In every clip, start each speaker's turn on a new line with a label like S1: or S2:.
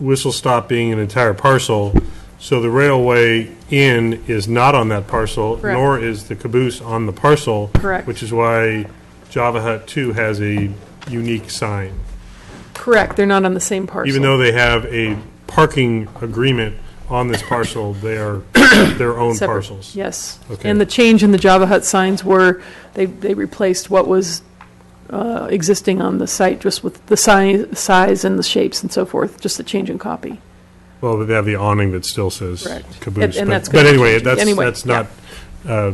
S1: Whistle Stop being an entire parcel, so the railway in is not on that parcel,
S2: Correct.
S1: nor is the caboose on the parcel.
S2: Correct.
S1: Which is why Java Hut 2 has a unique sign.
S2: Correct, they're not on the same parcel.
S1: Even though they have a parking agreement on this parcel, they are their own
S2: Separate,
S1: parcels.
S2: Yes.
S1: Okay.
S2: And the change in the Java Hut signs were, they, they replaced what was uh, existing on the site, just with the si- size and the shapes and so forth, just a change in copy.
S1: Well, they have the awning that still says
S2: Correct. And-
S1: caboose.
S2: and
S1: but-
S2: that's
S1: But
S2: gonna
S1: anyway,
S2: change.
S1: that's,
S2: Anyway,
S1: that's not, uh,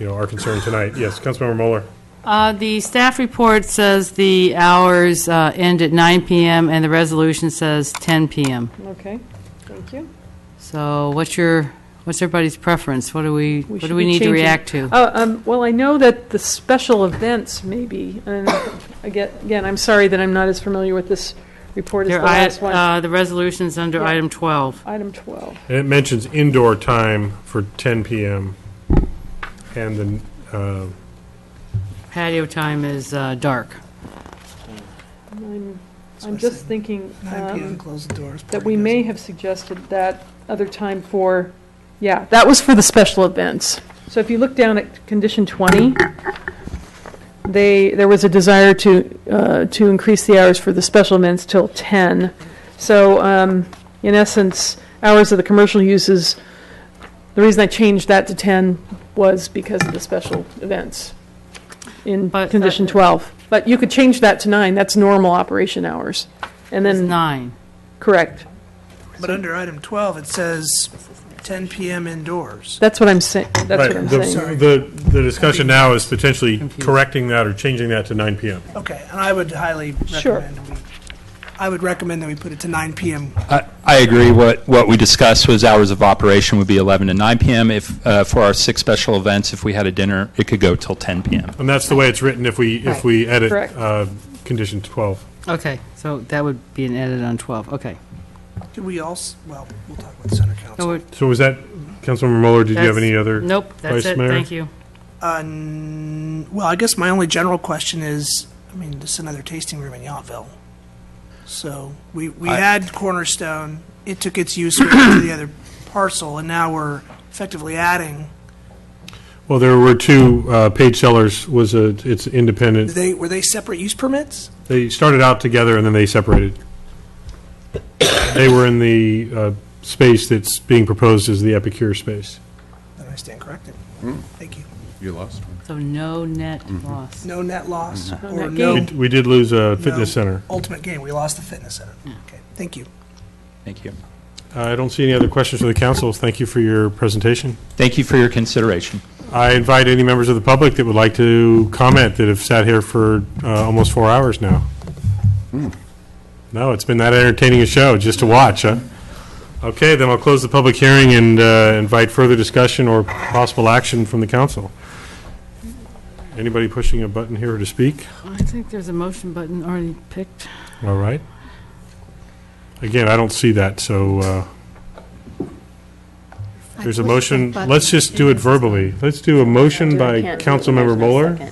S1: you know, our concern tonight. Yes, Councilmember Mueller?
S3: Uh, The staff report says the hours uh, end at 9 PM, and the resolution says 10 PM.
S2: Okay, thank you.
S3: So what's your, what's everybody's preference? What do we, what do we need to react to?
S2: Uh, um, Well, I know that the special events maybe, and again, again, I'm sorry that I'm not as familiar with this report as the
S3: There-
S2: last one.
S3: I- uh, The resolution's under
S2: Yeah.
S3: item 12.
S2: Item 12.
S1: And it mentions indoor time for 10 PM, and then, uh,
S3: Patio time is uh, dark.
S2: I'm,
S4: That's
S2: I'm
S4: what I
S2: just
S4: said.
S2: thinking.
S4: 9
S2: um,
S4: PM, close the doors.
S2: that
S4: party
S2: we may
S4: doesn't-
S2: have suggested that other time for, yeah, that was for the special events. So if you look down at condition 20, they, there was a desire to, uh, to increase the hours for the special events till 10. So um, in essence, hours of the commercial uses, the reason I changed that to 10 was because of the special events in
S3: But, uh,
S2: condition 12. But you could change that to 9, that's normal operation hours. And
S3: It's
S2: then,
S3: nine.
S2: correct.
S4: But under item 12, it says 10 PM indoors.
S2: That's what I'm saying, that's
S1: right,
S2: what I'm
S1: the-
S2: saying.
S1: the, the discussion now is potentially
S3: Confused.
S1: correcting that or changing that to 9 PM.
S4: Okay, and I would highly
S2: Sure.
S4: recommend, we- I would recommend that we put it to 9 PM.
S5: I I agree. What, what we discussed was hours of operation would be 11 to 9 p.m. If, uh, for our six special events, if we had a dinner, it could go till 10 p.m.
S1: And that's the way it's written if we, if we edit
S2: Correct.
S1: uh, condition 12.
S3: Okay, so that would be an edit on 12, okay.
S4: Do we also, well, we'll talk with Center
S3: No,
S4: Council.
S3: we're-
S1: So was that, Councilmember Mueller, did you have
S3: that's-
S1: any other?
S3: Nope, that's
S1: Vice
S3: it,
S1: Mayor?
S3: thank you.
S4: Uh, n- Well, I guess my only general question is, I mean, this is another tasting room in Yountville. So we, we
S5: I-
S4: had Cornerstone, it took its use went to the other parcel, and now we're effectively adding,
S1: Well, there were two, uh, Page Sellers was a, it's
S4: Did
S1: independent.
S4: they, were they separate use permits?
S1: They started out together and then they separated. They were in the uh, space that's being proposed as the Epicure space.
S4: Then I stand corrected. Thank you.
S6: You lost one.
S3: So no net
S1: Mm-hmm.
S3: loss.
S4: No net loss or
S2: net
S4: no
S2: gain.
S1: We- We did lose a fitness
S4: Oh. No.
S1: center.
S4: ultimate gain. We lost the fitness center. Okay, thank you.
S5: Thank you.
S1: I don't see any other questions for the council. Thank you for your presentation.
S5: Thank you for your consideration.
S1: I invite any members of the public that would like to comment that have sat here for uh, almost four hours now. No, it's been that entertaining a show just to watch, huh? Okay, then I'll close the public hearing and uh, invite further discussion or possible action from the council. Anybody pushing a button here to speak?
S3: I think there's a motion button already picked.
S1: All right. Again, I don't see that, so uh, there's a motion. Let's just do it verbally. Let's do a motion by Councilmember Mueller.
S3: All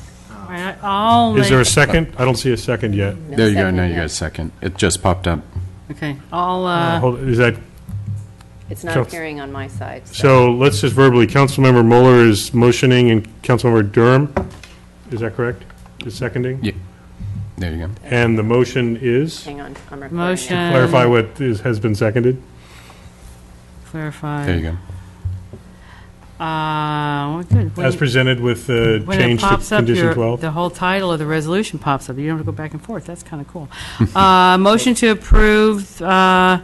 S3: right, I'll
S1: Is there a
S3: make,
S1: second? I don't see a second yet.
S6: There you go, now you got a second. It just popped up.
S3: okay, I'll, uh,
S1: Hold- Is that,
S7: It's not
S1: Couns-
S7: appearing on my side.
S1: so let's just verbally, Councilmember Mueller is motioning and Councilmember Durham, is that correct? Is seconding?
S6: Yeah. There you go.
S1: And the motion is,
S7: Hang on, I'm recording. now.
S3: Motion.
S1: clarify what is, has been seconded?
S3: clarify.
S6: There you go.
S3: Uh, well, good. When
S1: As
S3: you-
S1: presented with the
S3: when it
S1: change to
S3: pops up,
S1: condition
S3: your-
S1: 12?
S3: The whole title of the resolution pops up. You don't have to go back and forth. That's kind of cool. Uh, Motion to approve, uh,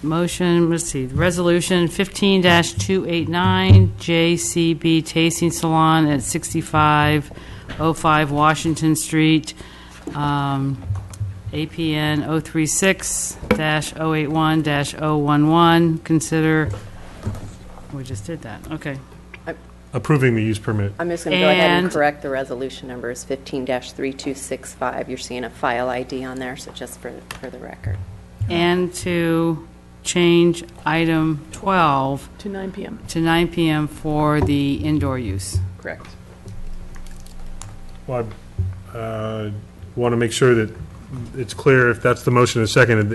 S3: motion, let's see, Resolution 15-289, JCB Tasting Salon at 6505 Washington Street, um, APN 036-081-011. Consider, we just did that, okay.
S1: Approving the use permit.
S7: I'm just going to go ahead and
S3: And-
S7: correct the resolution number is 15-3265. You're seeing a file ID on there, so just for, for the record.
S3: and to change item 12
S2: To 9 PM.
S3: to 9 PM for the indoor use.
S7: Correct.
S1: Well, I want to uh, make sure that it's clear if that's the motion and seconded,